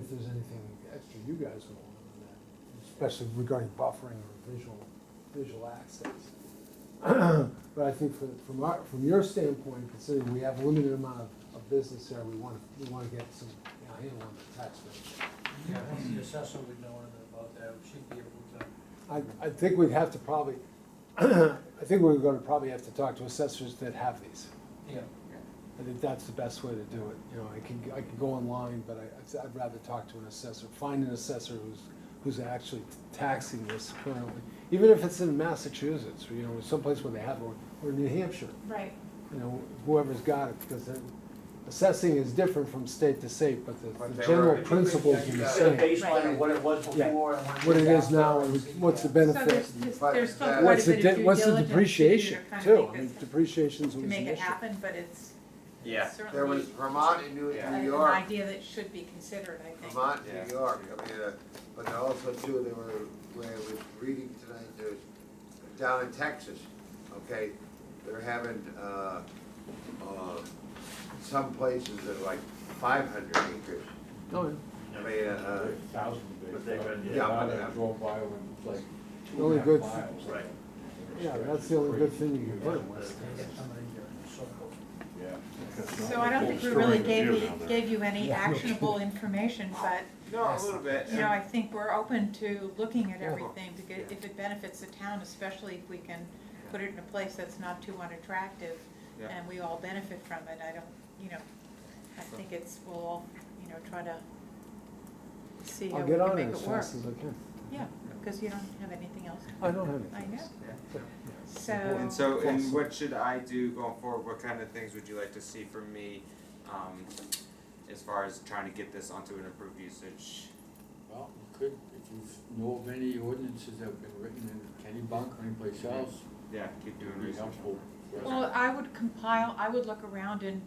If there's anything extra you guys would want on that, especially regarding buffering or visual, visual access. But I think from, from our, from your standpoint, considering we have a limited amount of, of business there, we want, we want to get some, you know, handle on the tax rate. Yeah, once the assessor would know anything about that, we should be able to. I, I think we'd have to probably, I think we're gonna probably have to talk to assessors that have these. Yeah. I think that's the best way to do it, you know, I can, I can go online, but I, I'd rather talk to an assessor, find an assessor who's, who's actually taxing this currently. Even if it's in Massachusetts, or, you know, someplace where they have, or, or New Hampshire, Right, you know, whoever's got it, because they're- assessing is different from state to state, but the- But the they general were- principles are the Yeah. Set a same. baseline of what it was Yeah. before and what. What it is now, and after. what's the so benefit, there's, just- But there's still that- quite what's a the, bit of di- due what's the diligence to do to depreciation kind of too? make I mean, this- depreciation's To always an make it issue. happen, but it's Yeah. There was certainly Vermont and New, a- New an York, idea that should be considered, I think. Vermont, Yeah. New York, I mean, uh, but there also too, there were, where I was reading tonight, there's, down in Texas, okay, they're having, uh, uh, some places that are like five hundred acres. Oh, yeah. I mean, uh, Thousand But they've been- Yeah, I but- drove by when it was like The two only and a half good- miles. Right. Yeah, that's the only good thing you can put in West Yeah, Texas. uh, somebody uh, here, so forth. Yeah. That's not So like I don't old think we story really of gave you you, down there. gave you any Yeah, no actionable information, but, No, a little bit. you know, I think we're open to looking at Yeah. everything, because if it benefits the town, especially if we can put it in a place that's not too unattractive, Yeah. and we all benefit from it, I don't, you know, I think it's, we'll, all, you know, try to see how I'll we get can on make it it as work. fast as I can. Yeah, because you don't have anything else to I don't have I anything know. else. So, And so, and Awesome. what should I do going forward? What kind of things would you like to see from me, um, as far as trying to get this onto an approved usage? Well, you could, if you know of any ordinances that have been written in Kennybunk or anyplace else, Yeah, keep it doing would be research. helpful. for us. well, I would compile, I would look around and,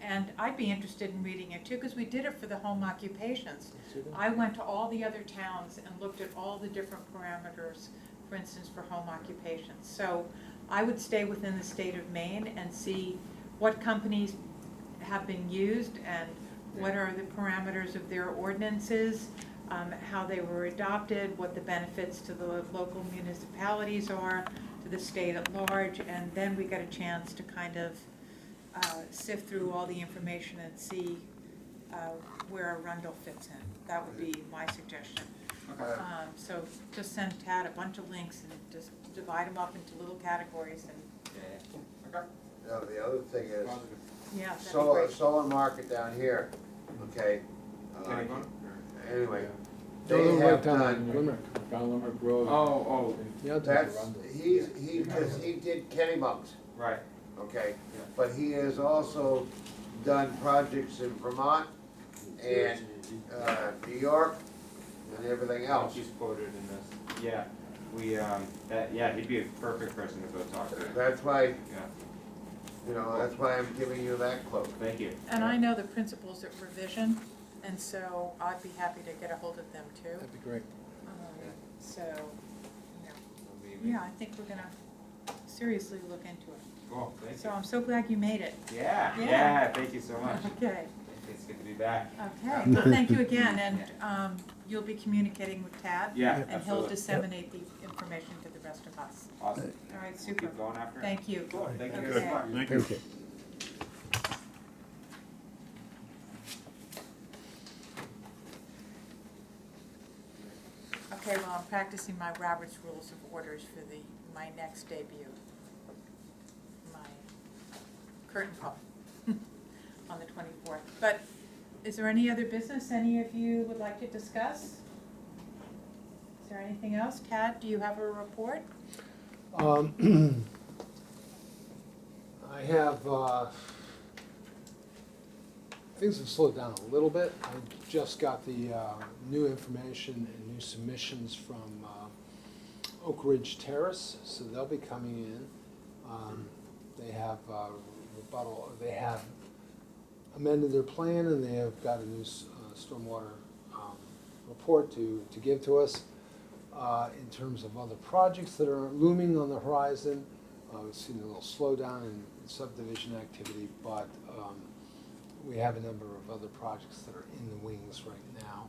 and I'd be interested in reading it too, because we did it for the home occupations. I went to all the other towns and looked at all the different parameters, for instance, for home occupations. So I would stay within the state of Maine and see what companies have been used and what are the parameters of their ordinances, um, how they were adopted, what the benefits to the local municipalities are, to the state at large, and then we got a chance to kind of uh, sift through all the information and see uh, where Arundel fits in. That would be my suggestion. uh, Um, So just send Tad a bunch of links and just divide them up into little categories and, Yeah. Okay. no, the other thing is, yeah, that'd be solar, great. solar market down here, okay? uh, Anyone? Anyway, Go to they the have right done, time, Limerick. Down Limerick Oh, Road. oh, Yeah, that's, Arundel. he's, he, just- he did Kennebunk's. right. okay? Yeah. But he has also done projects in Vermont, and, uh, New York, and everything Oh, else. she's quoted in this. Yeah, we, um, that, yeah, he'd be a perfect person to go talk to. That's why, Yeah, you know, that's why I'm giving you that quote. thank you. And I know the principles of revision, and so I'd be happy to get a hold of them too. That'd be great. Um, So, you know, Amazing. yeah, I think we're gonna seriously look into it. Cool, thank So you. I'm so glad you made it. Yeah, Yeah. yeah, thank you so much. Okay. It's good to be back. Okay, well, thank you again, and um, you'll be communicating with Tad, Yeah, and he'll absolutely. disseminate the information to the rest of us. Awesome. All right, We'll super, Keep going after it. thank you. Cool, thank you guys Okay. so Thank much. Thank you. Okay, well, I'm practicing my Robert's Rules of Orders for the, my next debut, my curtain call on the twenty-fourth. But is there any other business any of you would like to discuss? Is there anything else? Tad, do you have a report? Um, I have, uh, things have slowed down a little bit. I just got the uh, new information and new submissions from uh, Oak Ridge Terrace, so they'll be coming in. Um, They have uh, rebuttal, they have amended their plan and they have got a new s- uh, stormwater um, report to, to give to us uh, in terms of other projects that are looming on the horizon. Uh, We've seen a little slowdown in subdivision activity, but um, we have a number of other projects that are in the wings right now.